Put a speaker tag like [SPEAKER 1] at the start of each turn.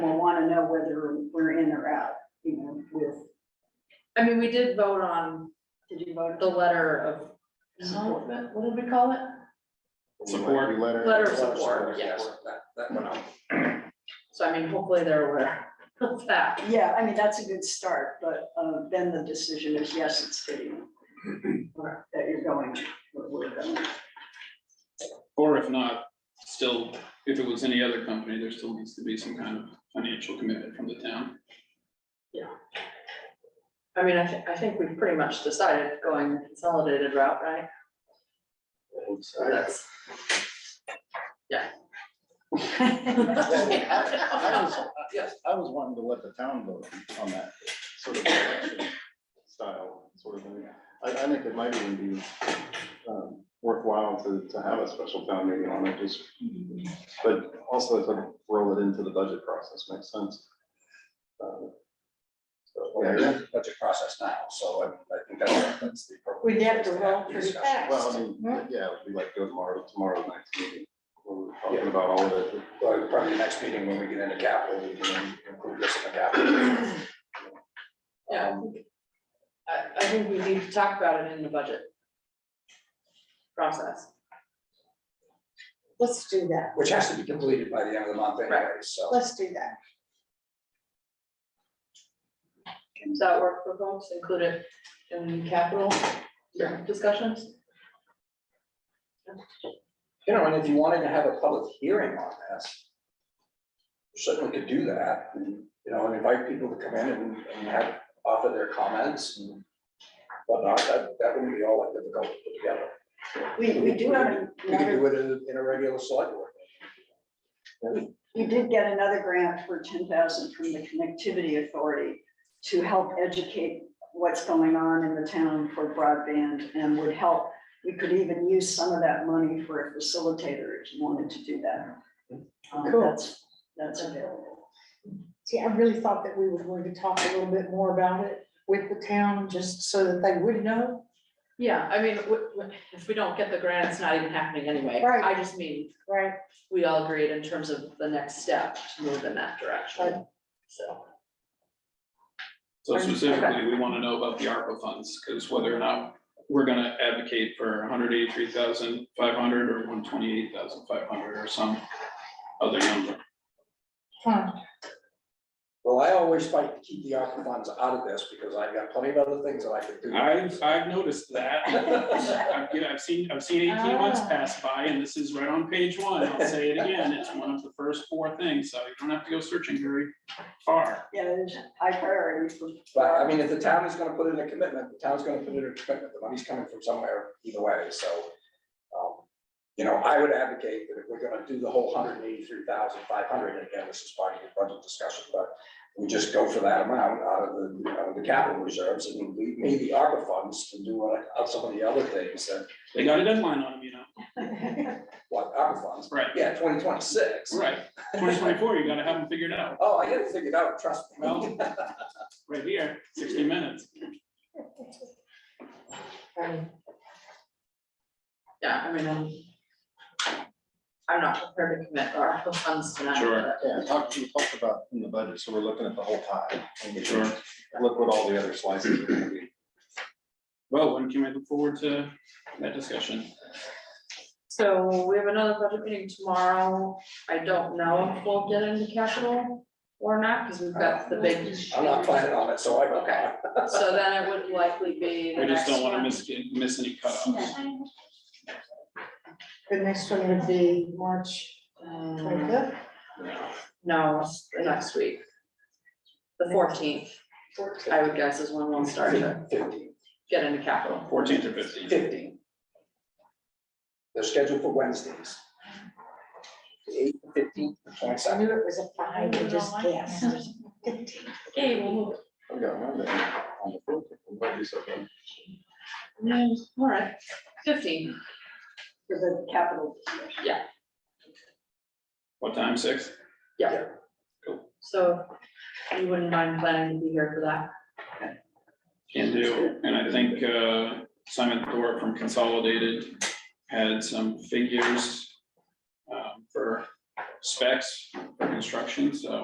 [SPEAKER 1] know whether we're in or out, you know, with.
[SPEAKER 2] I mean, we did vote on
[SPEAKER 1] Did you vote?
[SPEAKER 2] the letter of,
[SPEAKER 1] Support.
[SPEAKER 2] what did we call it?
[SPEAKER 3] Support.
[SPEAKER 4] Letter.
[SPEAKER 2] Letter of support, yes, that, that went out. So I mean, hopefully they're aware of that.
[SPEAKER 1] Yeah, I mean, that's a good start, but uh, then the decision is, yes, it's fitting. or That you're going, where we're going.
[SPEAKER 3] Or if not, still, if it was any other company, there still needs to be some kind of financial commitment from the town.
[SPEAKER 2] I mean, I thi- I think we've pretty much decided going the consolidated route, right? So that's. Yeah.
[SPEAKER 4] I was-
[SPEAKER 2] Yeah.
[SPEAKER 4] I was wanting to let the town vote on that sort of style, sort of thing. I, I think it might even be um, worthwhile to, to have a special town meeting on it, just. But also to roll it into the budget process makes sense. Um, so,
[SPEAKER 5] Well,
[SPEAKER 4] yeah,
[SPEAKER 5] there's a budget process now, so I, I think that's, that's the appropriate.
[SPEAKER 1] We'd have to
[SPEAKER 5] place have
[SPEAKER 1] roll
[SPEAKER 5] the
[SPEAKER 1] pretty
[SPEAKER 5] discussion.
[SPEAKER 4] Well, I
[SPEAKER 1] fast.
[SPEAKER 4] mean, yeah, it would be like go tomorrow, tomorrow night's meeting, where we're talking about all of it.
[SPEAKER 5] Well, probably the next meeting when we get into capital, we can include this in the capital.
[SPEAKER 2] Yeah, I think- I, I think we need to talk about it in the budget process.
[SPEAKER 6] Let's do that,
[SPEAKER 5] Which has to be completed by the end of the month anyway, so.
[SPEAKER 6] let's do that.
[SPEAKER 2] Does that work for folks, include it in capital discussions?
[SPEAKER 5] You know, and if you wanted to have a public hearing on this, you certainly could do that. You know, and invite people to come in and, and have, offer their comments and whatnot, that, that wouldn't be all that difficult to put together.
[SPEAKER 1] We, we do have
[SPEAKER 5] We could
[SPEAKER 1] another,
[SPEAKER 5] do it in, in a regular select board.
[SPEAKER 1] we did get another grant for ten thousand from the Connectivity Authority to help educate what's going on in the town for broadband and would help. We could even use some of that money for a facilitator if you wanted to do that. Um,
[SPEAKER 6] Cool.
[SPEAKER 1] That's, that's available.
[SPEAKER 6] See, I really thought that we were going to talk a little bit more about it with the town, just so that they would know.
[SPEAKER 2] Yeah, I mean, w- w- if we don't get the grant, it's not even happening anyway.
[SPEAKER 6] Right.
[SPEAKER 2] I just mean,
[SPEAKER 6] Right.
[SPEAKER 2] we all agreed in terms of the next step to move in that direction, so.
[SPEAKER 3] So specifically, we want to know about the ARPA funds, because whether or not we're gonna advocate for hundred eighty-three thousand five hundred or one twenty-eight thousand five hundred or some other number.
[SPEAKER 6] Huh,
[SPEAKER 5] Well, I always fight to keep the ARPA funds out of this because I've got plenty of other things that I could do.
[SPEAKER 3] I've, I've noticed that. I've, yeah, I've seen, I've seen eighteen months
[SPEAKER 6] Ah.
[SPEAKER 3] pass by, and this is right on page one. I'll say it again. It's one of the first four things, so you don't have to go searching very far.
[SPEAKER 1] Yeah, there's high priority for.
[SPEAKER 5] But I mean, if the town is gonna put in a commitment, the town's gonna put in a commitment, the money's coming from somewhere either way, so. um, You know, I would advocate that if we're gonna do the whole hundred and eighty-three thousand five hundred, and again, this is part of the budget discussion, but. We just go for that amount out of the, you know, the capital reserves and leave me the ARPA funds to do what I- some of the other things that,
[SPEAKER 3] They got a deadline on them, you know?
[SPEAKER 5] what, ARPA funds.
[SPEAKER 3] Right,
[SPEAKER 5] Yeah, twenty twenty-six.
[SPEAKER 3] right. Twenty twenty-four, you gotta have them figured out.
[SPEAKER 5] Oh, I gotta figure it out, trust me.
[SPEAKER 3] Well, right here, sixty minutes.
[SPEAKER 6] um,
[SPEAKER 2] Yeah, I mean, I'm. I'm not prepared to commit our funds tonight.
[SPEAKER 3] Sure.
[SPEAKER 2] but-
[SPEAKER 4] Yeah, talk, we talked about in the budget, so we're looking at the whole pie. and we
[SPEAKER 3] Sure.
[SPEAKER 4] Look what all the other slices are gonna be.
[SPEAKER 3] Well, when can we look forward to that discussion?
[SPEAKER 2] So we have another budget meeting tomorrow. I don't know if we'll get into capital or not, because we've got the big.
[SPEAKER 5] I'm not planning on it, so I don't.
[SPEAKER 2] Okay. So then it would likely be the
[SPEAKER 3] I
[SPEAKER 2] next
[SPEAKER 3] just don't wanna
[SPEAKER 2] one.
[SPEAKER 3] miss, miss any cutoffs.
[SPEAKER 6] The next one would be March
[SPEAKER 1] uh,
[SPEAKER 2] Um,
[SPEAKER 6] twenty-fifth,
[SPEAKER 2] No, it's the next week. The fourteenth, I would guess is when we'll start to
[SPEAKER 5] Fifteen,
[SPEAKER 2] get into capital.
[SPEAKER 3] Fourteenth or fifteenth.
[SPEAKER 5] fifteen. They're scheduled for Wednesdays. The eighth, the fifteenth, the
[SPEAKER 6] I
[SPEAKER 5] twenty-second.
[SPEAKER 6] knew it was a five, I just guessed.
[SPEAKER 4] I've got mine there on the book. It might be something.
[SPEAKER 2] Yeah, all right, fifteen,
[SPEAKER 1] For the capital discussion.
[SPEAKER 3] What time, six?
[SPEAKER 2] so you wouldn't mind planning to be here for that?
[SPEAKER 3] Can do, and I think uh, Simon Thorpe from Consolidated had some figures um, for specs for construction, so